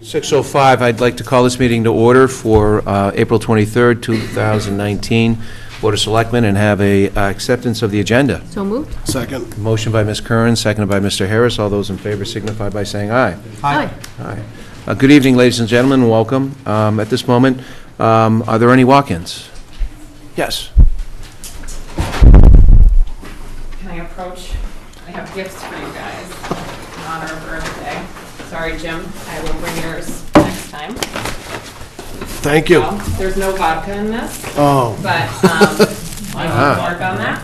6:05, I'd like to call this meeting to order for uh, April 23rd, 2019, Board of Selectmen, and have a uh, acceptance of the agenda. So moved? Second. Motion by Ms. Curran, seconded by Mr. Harris. All those in favor signify by saying aye. Aye. Aye. Uh, Good evening, ladies and gentlemen, and welcome. Um, At this moment, um, are there any walk-ins? Yes. Can I approach? I have gifts for you guys in honor of Earth Day. Sorry, Jim, I will bring yours next time. Thank you. Well, There's no vodka in this, Oh, but um, I will work on that.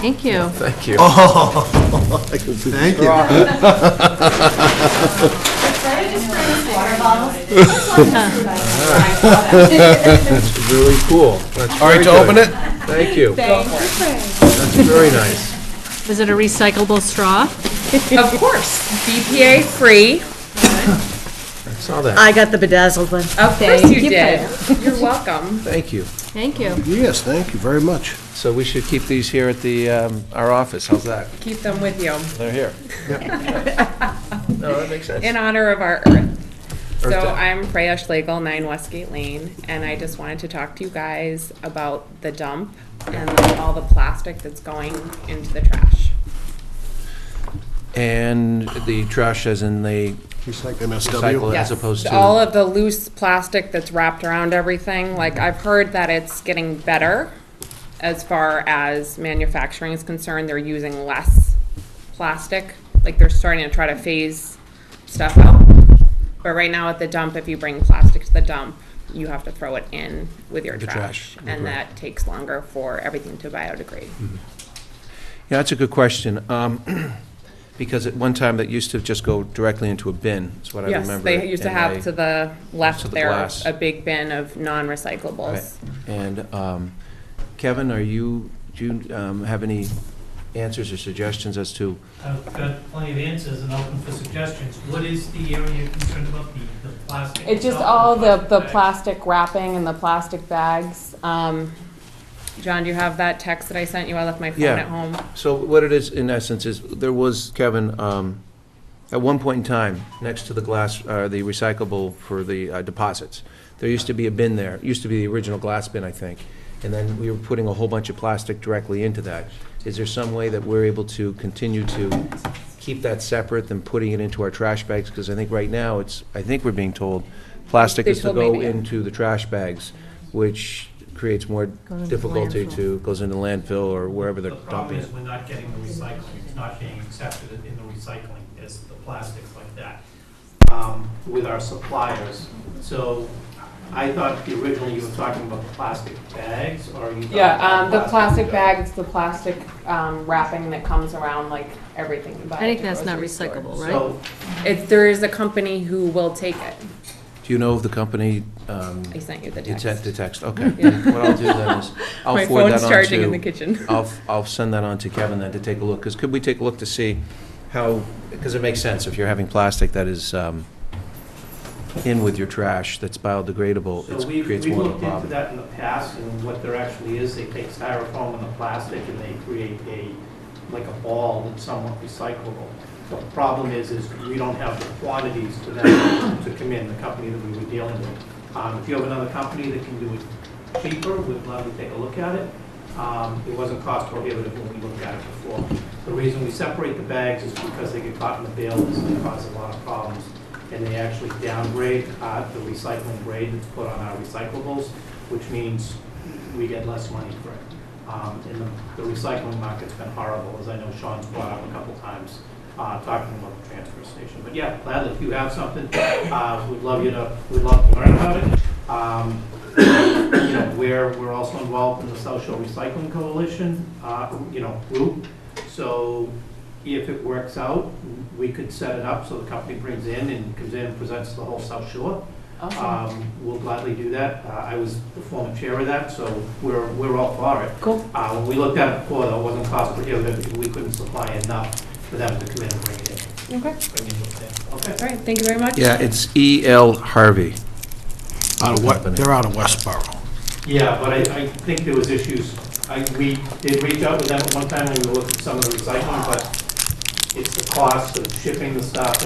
Thank you. Thank you. thank you. Did I just bring this water Really cool. All right, to open it? Thank you. That's very nice. Is it a recyclable straw? Of course, BPA-free. I saw that. I got the bedazzled one. Of course you did. You're welcome. Thank you. Thank you. Yes, thank you very much. So we should keep these here at the, um, our office, how's that? Keep them with you They're here. No, that makes sense. in honor of our Earth So Earth Day. I'm Freya Schlegel, 9 Westgate Lane, and I just wanted to talk to you guys about the dump and all the plastic that's going into the trash. And the trash as in the recycle MSW. as Yes, opposed All to, of the loose plastic that's wrapped around everything, like, Mm-hmm. I've heard that it's getting better as far as manufacturing is concerned, they're using less plastic, like, they're starting to try to phase stuff out. But right now at the dump, if you bring plastic to the dump, you have to throw it in with your The trash, Mm-hmm. trash. And that takes longer for everything to biodegrade. yeah, that's a good question. Um, Because at one time, that used to just go directly into a bin, is what I remember. Yes, they used to and have I- to the To left the there, glass. a big bin of non-recyclables. And um, Kevin, are you, do you um, have any answers or suggestions as to, I've got plenty of answers and open for suggestions. What is the area you're concerned about, the, the plastic? It's just itself or all the, the bag? plastic wrapping and the plastic bags. Um, John, do you have that text that I sent you? I left my phone Yeah. at home. so what it is, in essence, is there was, Kevin, um, at one point in time, next to the glass, uh, the recyclable for the uh, deposits, there used to be a bin there, It used to be the original glass bin, I think, and then we were putting a whole bunch of plastic directly into that. Is there some way that we're able to continue to keep that separate than putting it into our trash bags? Because I think right now, it's, I think we're being told, plastic They is to told go me, yeah. into the trash bags, which creates more into difficulty landfill. to, goes into landfill or wherever The they're problem dumping is it. we're not getting the recycling, it's not being accepted in the recycling, it's the plastics like that, um, with our suppliers. So I thought originally you were talking about plastic bags, or you? talking Yeah, um, the about plastic bag, it's the plastic, um, wrapping that comes around like everything you buy. I at think the that's not grocery store. recyclable, right? So, It's, there is a company who will take it. Do you know of the company? um, I sent you the It's text. at the text, okay. What I'll do then is, I'll My forward phone's that on charging in to- the kitchen. I'll, I'll send that on to Kevin then to take a look, because could we take a look to see how, because it makes sense, if you're having plastic that is um, in with your trash, that's biodegradable, so it we've, creates we've more of a looked into problem. that in the past, and what there actually is, they take styrofoam and the plastic, and they create a, like a ball that's somewhat recyclable. The problem is, is we don't have the quantities to them to come in, the company that we were dealing with. Um, if you have another company that can do it cheaper, we'd love to take a look at it. Um, it wasn't cost prohibitive when we looked at it before. The reason we separate the bags is because they get caught in the bales and they cause a lot of problems. And they actually downgrade, uh, the recycling grade that's put on our recyclables, which means we get less money for it. Um, And the the recycling market's been horrible, as I know Sean's brought up a couple times, uh, talking about the transfer station. But yeah, gladly, if you have something, uh, we'd love you to, we'd love to learn about it. Um, You know, we're, we're also involved in the South Shore Recycling Coalition, uh, you know, group. So if it works out, we could set it up so the company brings in and comes in and presents the whole South Shore. Awesome. Um, We'll gladly do that. Uh, I was the former chair of that, so we're, we're all for it. Cool. Uh, When we looked at it before, though, it wasn't cost prohibitive, because we couldn't supply enough for them to come in and bring it in. Okay, all Bring it in. Okay. right, thank you very much. Yeah, it's E.L. Harvey. Out of what, Company. they're out of Westboro. Yeah, but I, I think there was issues. I, we did reach out with them at one time, and we looked at some of the recycling, but it's the cost of shipping the stuff,